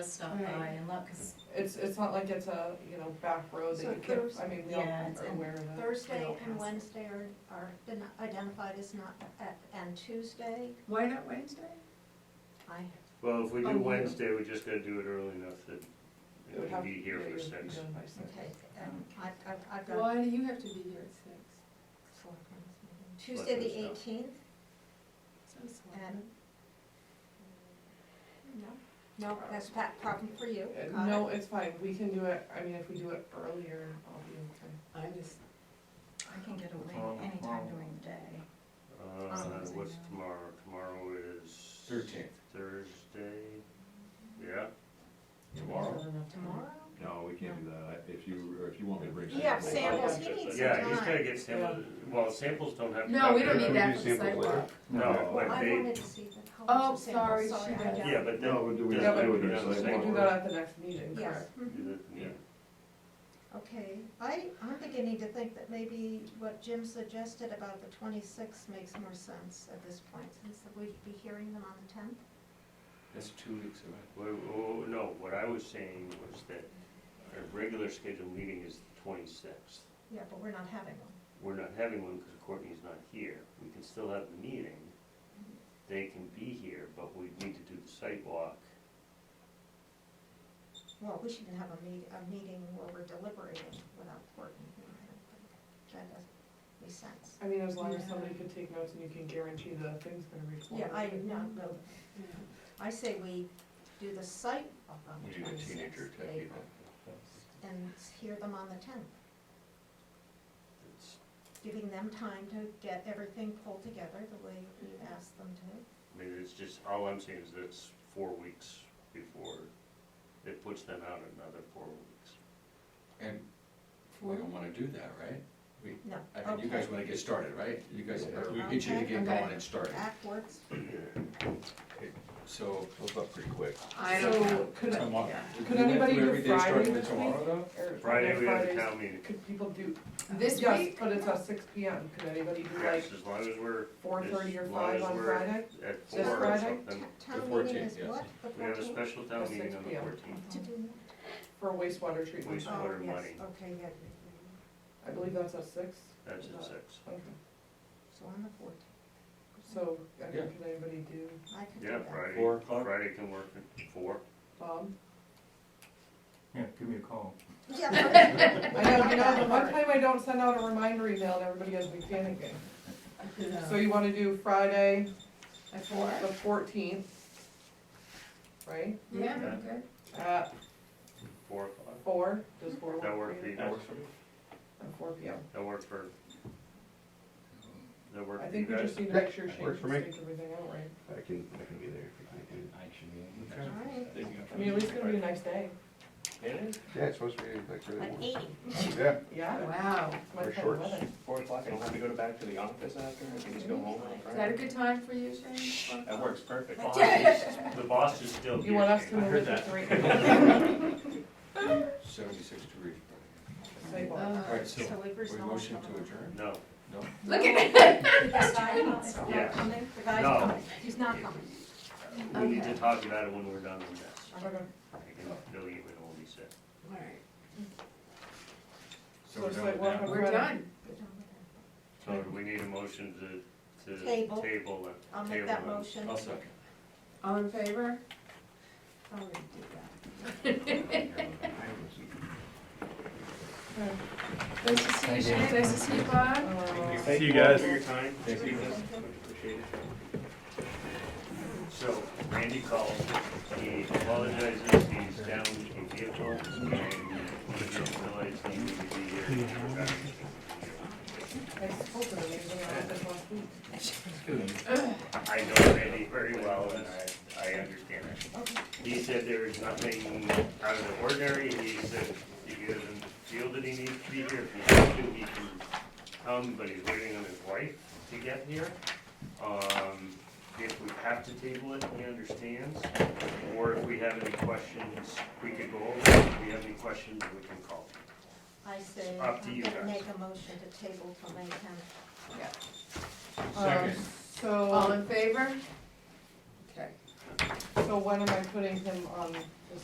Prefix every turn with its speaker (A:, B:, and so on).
A: stop by
B: Right.
A: and look, cause
C: It's, it's not like it's a, you know, back road that
B: So
C: you can't,
B: Thursday-
C: I mean, we all
A: Yeah, it's
C: are
A: in
C: aware of that.
B: Thursday
A: They'll
B: and
A: pass it.
B: Wednesday are, are been identified as not, at- and Tuesday,
D: Why not Wednesday?
B: I,
E: Well, if we
C: Oh, yeah.
E: do Wednesday, we just gotta do it early enough that
C: It would
E: it
C: have-
E: can be here
C: yeah, it
E: for
C: would be
E: six.
C: done by six.
B: okay, um, I, I, I've got
D: Why do you have to be here at six?
B: selectmen's meeting. Tuesday the
E: Selectmen's
B: eighteenth,
D: Sounds like
B: And-
D: it.
B: no, no, that's a pa- problem for you,
C: Uh,
B: got
C: No,
B: it.
C: it's fine, we can do it, I mean, if we do it earlier, I'll be okay.
D: I just,
A: I can get
E: Oh,
A: away anytime
E: oh.
A: during the day.
E: Uh,
A: Sounds
E: what's
A: like-
E: tomorrow? Tomorrow is.
F: Thirteenth.
E: Thursday, yeah.
F: Tomorrow?
B: Tomorrow?
F: No, we can't do that, if you, or if you want me to bring.
B: You have
F: something-
B: samples, he needs some
E: Yeah, he's gotta
B: time.
E: get samples, well, samples don't have. to
D: no, we
E: come
D: don't
E: here.
D: need that for the
F: Samples later.
D: sidewalk.
E: No,
B: Well,
E: but
B: I
E: they,
B: wanted to see the colors
D: Oh,
B: of samples,
D: sorry,
B: sorry.
D: she
B: I
D: went
B: don't-
D: down.
E: yeah, but then.
F: No, but do we
E: doesn't
C: have to
E: matter
C: do
E: if you
F: it on
E: do
F: the
E: the
F: same
C: We
E: same
C: do
F: Tomorrow.
C: that
E: work.
C: at the next meeting,
B: Yes,
C: correct?
D: Mm-hmm.
B: mhm,
E: You do- yeah.
B: okay, I, I'm beginning to think that maybe what Jim suggested about the twenty-sixth makes more sense at this point, since we'd be hearing them on the tenth.
F: That's two weeks away.
E: Well, well, no, what I was saying was that our regular scheduled meeting is the twenty-sixth.
B: Yeah, but we're not having one.
E: We're not having one because Courtney's not here. We can still have the meeting. They can be here, but we need to do the site walk.
B: Well, we shouldn't have a meet, a meeting where we're deliberating without Courtney. here. That doesn't make sense.
C: I mean, as long as
D: Yeah.
C: somebody could take notes and you can guarantee the thing's gonna record.
B: Yeah, I, no, no,
D: Yeah.
B: I say we do the site up on
F: We
B: the
F: need a teenager
B: twenty-sixth
F: to take it.
B: and hear them on the tenth,
E: It's-
B: giving them time to get everything pulled together the way we asked them to.
E: I mean, it's just, all I'm saying is that's four weeks before, it puts them out another four weeks.
G: And we don't wanna do that, right?
B: No,
G: I mean, you guys
B: okay,
G: wanna get started, right? You guys, we get you to
B: Okay.
G: get going and started,
B: that works.
G: so.
F: Goes up pretty quick.
D: I don't know.
C: So, could,
G: tomorrow-
D: yeah.
G: we
C: Could
G: can
C: anybody do
G: everything
C: Friday
G: starting with
C: this week?
G: Tomorrow, though?
C: or-
E: Friday, we have a
C: Fridays,
E: town meeting.
C: Could people do?
D: This
C: Yes,
D: week?
C: but it's at six P M, could anybody do like
E: Yes, as long as we're
C: four thirty or
E: As long
C: five
E: as
C: on
E: we're-
C: Friday?
E: at
C: This
E: four or
C: Friday?
E: something.
B: Ta- Town meeting
G: 14th,
B: is
G: yes.
B: what, the
E: We have a
B: fourteenth?
E: special town
C: At
E: meeting
C: 6
E: on the
C: p.m.
E: fourteenth.
C: For wastewater treatment,
E: Waste- Water
B: Oh, yes,
E: money.
B: okay, yeah,
C: I believe that's at six.
E: That's at six.
C: Okay,
B: so on the fourteenth,
C: so, I mean,
G: Yeah.
C: can anybody do,
B: I could do
E: Yeah,
B: that.
E: Friday.
G: Four o'clock?
E: Friday can work at four.
C: Bob?
F: Yeah, give me a call.
B: Yeah, but-
C: I know, you know, the one time I don't send out a reminder email and everybody has me panicking. So you wanna do Friday,
D: Oh. At four?
C: the fourteenth, right,
D: Yeah,
E: Yeah.
D: okay.
C: at
E: Four o'clock.
C: four, does four work
E: That
C: for
E: work for
C: you?
E: you guys?
F: for me.
C: At four P M.
E: That work for? That work
C: I
E: for you
C: think we
E: guys?
C: just need to make sure she
F: Works
C: takes
F: for me.
C: everything out right.
F: I can, I can be there if you can
G: I should be.
B: All right.
C: I mean, at least it's gonna be a nice day.
F: Yeah, it's supposed to be like really
B: At
F: warm.
B: eighty.
F: Yeah.
C: Yeah,
D: Wow.
C: it's my
F: Wear
C: kind of
F: shorts.
C: weather.
H: Four o'clock, I don't have to go to back to the office after, I can just go home on
D: Is that a
H: Friday.
D: good time for you, Shane?
H: That works perfect.
E: Boss is- The boss is still here.
C: You want us to
E: Shane.
C: move it to three?
G: Seventy-six degrees.
C: Say what?
D: Uh,
G: Alright, so,
B: So we've
G: we
B: resolved
G: motion
B: some of
G: to
B: them.
G: adjourn?
E: No,
G: No?
D: Look at it.
B: The guy's not
E: Yeah.
B: coming, the guy's
E: No.
B: coming, he's not coming.
E: we need to
D: Okay.
E: talk about it when we're done with this.
C: Okay.
E: I can fill you in all these things.
D: All right.
G: So
C: So
G: we're
C: it's
G: done
C: like
G: with
C: one
G: that?
C: of-
D: We're done.
B: We're done with that.
E: So do we need a motion to, to table
B: Table.
E: it? Table it.
B: I'll make that motion.
G: I'll second.
D: All in favor? Oh, we did that. Nice to see you, Shane. Nice to see you, Bob.
C: Uh,
H: See you guys. For your time.
G: Thank you.
H: Appreciate it.
E: So Randy calls, he apologizes, he's down in vehicle, and he didn't realize he needed to be here. He forgot he was gonna
C: I spoke to them, they were at this last week.
E: be here. I know Randy very well, and I, I understand it. He said there is nothing out of the ordinary, he said he doesn't feel that he needs to be here, if he has to, he can come, but he's waiting on his wife to get here. Um, if we have to table it, he understands, or if we have any questions, we could go over, it. if we have any questions, we can call.
B: I say, I'm
E: Up to you
B: gonna
E: guys.
B: make a motion to table till May tenth.
C: Um,
G: Second.
C: So.
D: All in favor? Okay.
C: So when am I putting him on